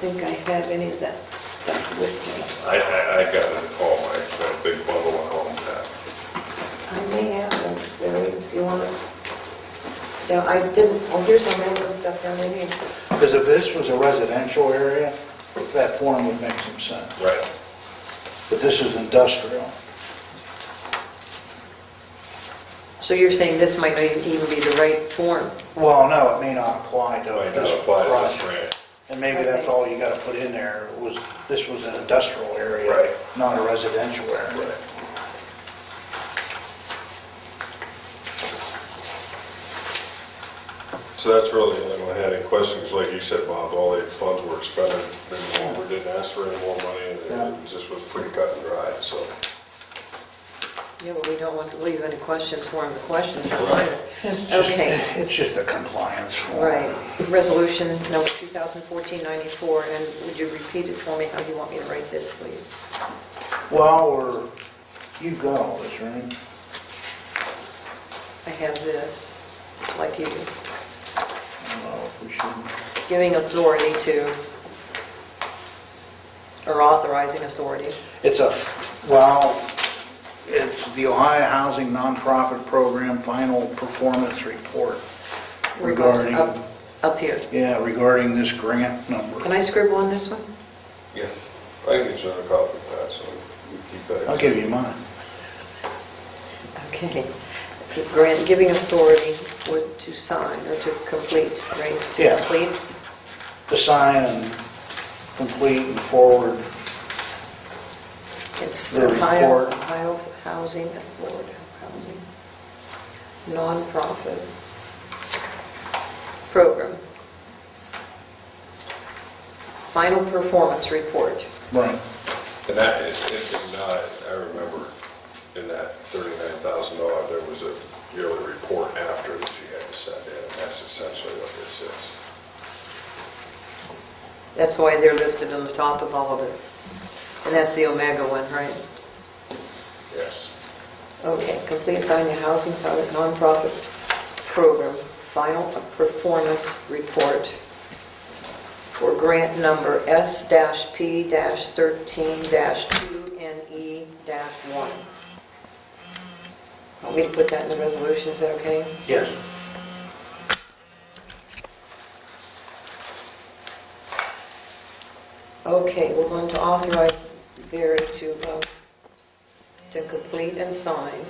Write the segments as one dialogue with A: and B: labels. A: think I have any of that stuff with me.
B: I, I, I got it at home, I got a big bundle at home, uh, yeah.
A: I may have them, Barry, if you want to. No, I didn't, oh, here's some random stuff down in here.
C: Because if this was a residential area, that form would make some sense.
B: Right.
C: But this is industrial.
D: So you're saying this might not even be the right form?
C: Well, no, it may not apply to
B: Might
C: this
B: not apply to this
C: project.
B: grant.
C: And maybe that's all you got to put in there, was this was an industrial area.
B: Right.
C: Not a residential area.
B: So that's really the only one I had any questions, like you said, Bob, all the funds were expended, then the board didn't ask for any more money, and it
C: Yeah.
B: just was pretty cut and dry, so.
D: Yeah, but we don't want to leave any questions for him, the questions are
B: Right.
D: minor.
C: It's just-
D: Okay,
C: It's just a compliance form.
D: right. Resolution number 2014-94, and would you repeat it for me, how you want me to write this, please?
C: Well, we're, you've got all this, right?
D: I have this, like you do.
C: I don't know if we should,
D: giving authority to, or authorizing authority.
C: it's a, well, it's the Ohio Housing Nonprofit Program Final Performance Report
D: regards-
C: regarding,
D: Up up here.
C: yeah, regarding this grant number.
D: Can I scribble on this one?
B: Yeah. I can get you another copy of that, so you keep that.
C: I'll give you mine.
D: Okay. Grant, giving authority would to sign or to complete, right? To
C: Yeah.
D: complete?
C: To sign and complete and forward,
D: It's
C: The
D: Ohio
C: report.
D: Ohio Housing Authority, Housing Nonprofit Program. Final performance report.
C: right.
B: And that, it it did not, I remember in that $39,000, there was a yearly report after that you had to send in, and that's essentially what this is.
D: That's why they're listed on the top of all of it. And that's the Omega one, right?
B: Yes.
D: Okay, complete sign your housing product nonprofit program, final performance report for grant number E S-P-13-2NE-1. Want me to put that in the resolution, is that okay?
C: Yes.
D: Okay, we're going to authorize Vera to, uh, to complete and sign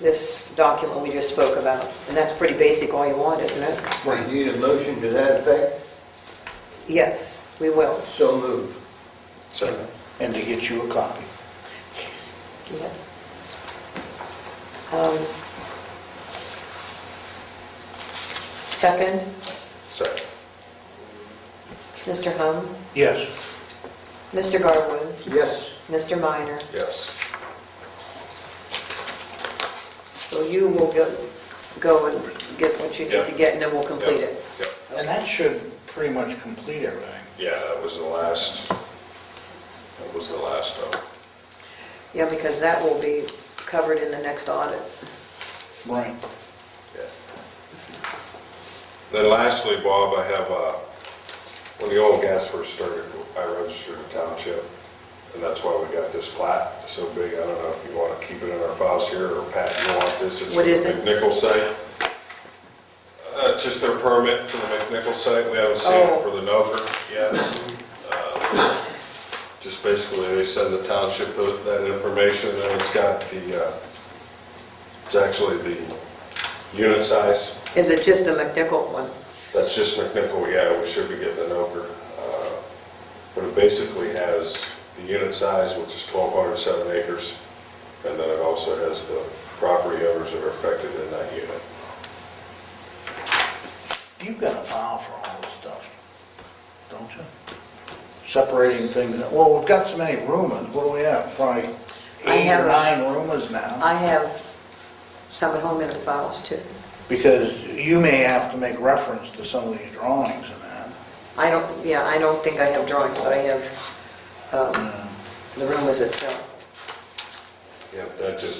D: this document we just spoke about. And that's pretty basic, all you want, isn't it?
E: Well, you need a motion to that effect?
D: Yes, we will.
E: So moved.
B: Second.
C: And to get you a copy.
D: Yeah. Um, Second,
B: Second.
D: Mr. Hum,
C: Yes.
D: Mr. Garwood,
E: Yes.
D: Mr. Minor.
B: Yes.
D: So you will go go and get what you need to
B: Yeah.
D: get, and then we'll complete it.
B: Yep.
C: And that should pretty much complete everything.
B: Yeah, that was the last, that was the last of,
D: Yeah, because that will be covered in the next audit.
C: Right.
B: yeah. Then lastly, Bob, I have, uh, when the oil and gas first started, I registered a township, and that's why we got this plat so big. I don't know if you want to keep it in our files here, or Pat, you want this?
D: What is
B: It's
D: it?
B: the McNichol site. Uh, it's just their permit for the McNichol site. We haven't seen
D: Oh.
B: it for the Nover yet. Uh, Just basically, they send the township tho- that information, and it's got the, uh, it's actually the unit size.
D: Is it just the McNichol one?
B: That's just McNichol, yeah, we should be getting an over. Uh, But it basically has the unit size, which is 1,207 acres, and then it also has the property owners that are affected in that unit.
C: You've got a file for all this stuff, don't you? Separating things, out. well, we've got so many rumors, what do we have, probably
D: I
C: eight
D: have
C: or
D: a-
C: nine rumors now?
D: I have some at home in the files too.
C: Because you may have to make reference to some of these drawings and that.
D: I don't, yeah, I don't think I have drawings, but I have um,
C: Uh,
D: the room as itself.
B: Yeah, that just